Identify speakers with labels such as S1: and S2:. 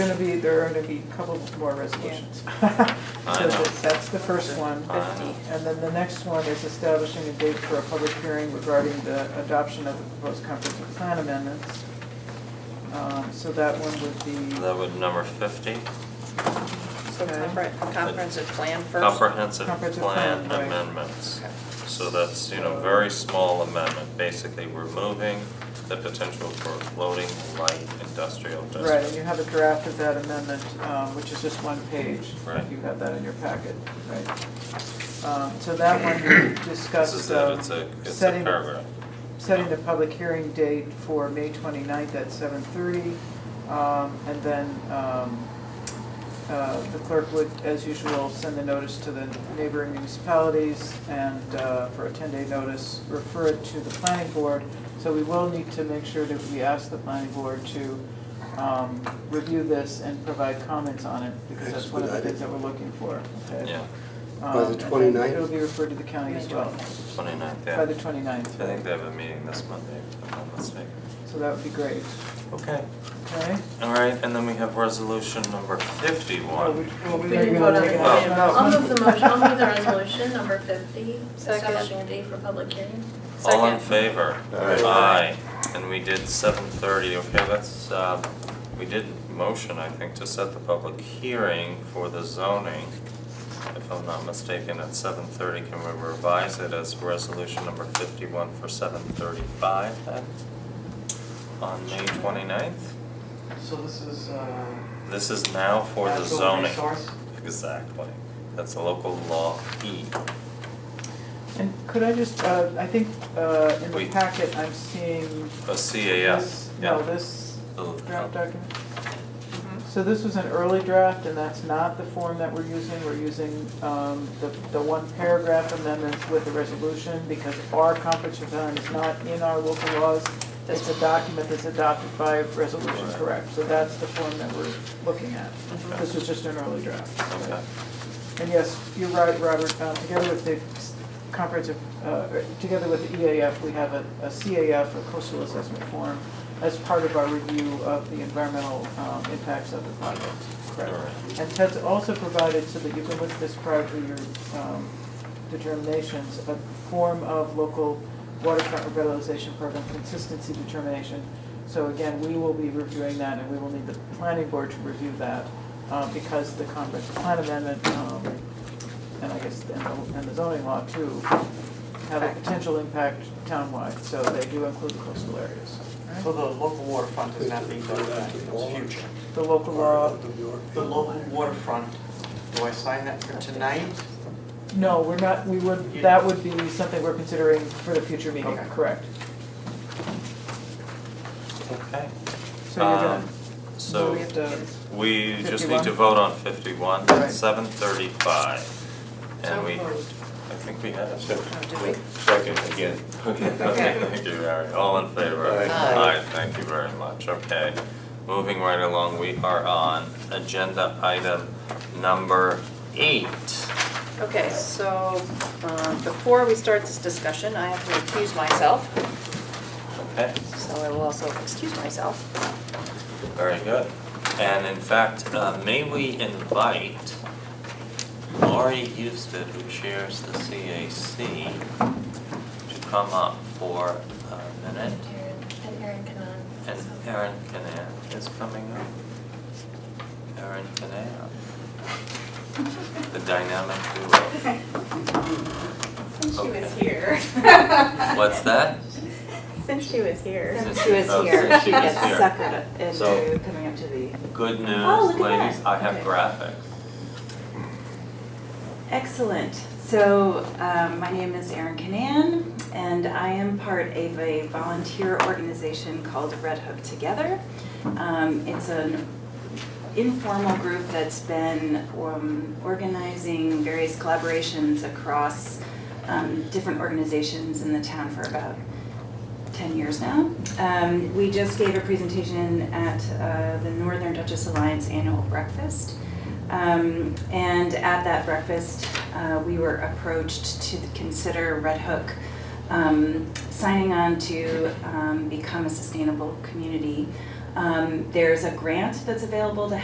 S1: gonna be, there are gonna be a couple more resolutions.
S2: I
S1: So
S2: know.
S1: that's- That's the first one.
S2: I know.
S1: And then the next one is establishing a date for a public hearing regarding the adoption of the proposed comprehensive plan amendments. Um, So that one would be
S2: That would number fifty,
S3: So compre- comprehensive plan first?
S2: comprehensive
S1: Comprehensive
S2: plan
S1: plan, right.
S2: amendments.
S3: Okay.
S2: So that's, you know, very small amendment, basically removing the potential for floating light industrial
S1: right, and
S2: district.
S1: you have a draft of that amendment, um, which is just one page.
S2: Right.
S1: You have that in your packet, right? Um, So that one we
S2: This
S1: discussed.
S2: is it,
S1: um,
S2: it's a, it's a
S1: setting-
S2: paragraph.
S1: setting the public hearing date for May 29th at 7:30. um, And then um, uh, the clerk would, as usual, send the notice to the neighboring municipalities and uh, for a 10-day notice, refer it to the planning board. So we will need to make sure that we ask the planning board to um, review this and provide comments on it because that's one of the
S4: Expedite it.
S1: things that we're looking for. okay?
S2: Yeah,
S1: Um,
S4: By the
S1: and then
S4: 29th?
S1: It'll be referred to the county as well,
S2: 29th, yeah.
S1: by the 29th.
S2: I think they have a meeting this Monday, if I'm not mistaken.
S1: So that would be great,
S2: Okay,
S1: okay?
S2: all right, and then we have resolution number
S1: Well,
S2: fifty-one.
S1: Oh, we- well, we
S5: We
S1: are
S5: didn't
S1: gonna
S5: vote on
S1: take
S5: it.
S1: an action on
S5: I'll
S1: that
S5: move
S1: one.
S5: the motion, I'll move the resolution, number fifty,
S3: Second.
S5: establishing a date for public hearing.
S2: All
S3: Second.
S2: in favor?
S4: Aye.
S2: Aye. and we did seven thirty, okay, that's, uh, we did motion, I think, to set the public hearing for the zoning. If I'm not mistaken, at seven thirty, can we revise it as resolution number fifty-one for seven thirty-five then? On May 29th.
S6: So this is, uh.
S2: this is now for the
S6: natural
S2: zoning.
S6: resource?
S2: Exactly, that's a local law E.
S1: And could I just, uh, I think, uh, in the
S2: Wait.
S1: packet, I'm seeing
S2: A
S1: this,
S2: CAS, yeah.
S1: no, this
S2: Oh,
S1: draft
S2: oh.
S1: document. So this was an early draft, and that's not the form that we're using, we're using, um, the, the one paragraph amendments with the resolution, because our comprehensive plan is not in our local laws. It's a document that's adopted by resolution,
S2: Right.
S1: correct, so that's the form that we're looking at.
S2: Mhm.
S1: This was just an early draft.
S2: Okay,
S1: And yes, you're right, Robert, uh, together with the comprehensive, uh, together with the EAF, we have a a CAF, a coastal assessment form, as part of our review of the environmental um, impacts of the project. Correct.
S2: Alright.
S1: And Ted's also provided, so that you can look at this prior to your um, determinations, a form of local waterfront revitalization program consistency determination. So again, we will be reviewing that, and we will need the planning board to review that, uh, because the comprehensive plan amendment, um, and I guess, and the- and the zoning law too, have a potential impact townwide, so they do include the coastal areas.
S6: So the local waterfront is not being done, tonight, it's future.
S1: The local law,
S6: The local waterfront, do I sign that for tonight?
S1: no, we're not, we would, that would be something we're considering for the future meeting,
S6: Okay.
S1: correct?
S2: okay.
S1: So you're gonna,
S2: Um,
S1: so we have
S2: So,
S1: to,
S2: we just need to
S1: 51?
S2: vote on fifty-one,
S1: Right.
S2: seven thirty-five.
S3: So
S2: And we,
S3: moved.
S2: I think we had it.
S3: Oh, did we?
S4: Second, again.
S2: Okay, okay, thank you, Larry, all in favor?
S4: Aye.
S6: Aye.
S2: thank you very much, okay. Moving right along, we are on agenda item number eight.
S3: Okay, so, um, before we start this discussion, I have to excuse myself,
S2: Okay,
S3: so I will also excuse myself.
S2: very good. And in fact, uh, may we invite Laurie Houston, who chairs the CAC, to come up for a minute?
S5: And Erin Cannon.
S2: And Erin Canaan is coming up. Erin Canaan. The dynamic duo.
S7: Since she was here.
S2: What's that?
S7: Since she was here.
S2: Since
S8: Since she was
S2: oh,
S8: here,
S2: since
S8: she
S2: she was
S8: gets
S2: here.
S8: suckered
S2: So-
S8: into coming up to the,
S2: Good
S8: Oh,
S2: news,
S8: look at
S2: ladies,
S8: that.
S2: I have
S8: Okay.
S2: graphics.
S8: excellent. So, um, my name is Erin Canaan, and I am part of a volunteer organization called Red Hook Together. Um, it's an informal group that's been, um, organizing various collaborations across, um, different organizations in the town for about 10 years now. Um, we just gave a presentation at uh, the Northern Duchess Alliance annual breakfast. Um, and at that breakfast, uh, we were approached to consider Red Hook um, signing on to um, become a sustainable community. Um, there's a grant that's available to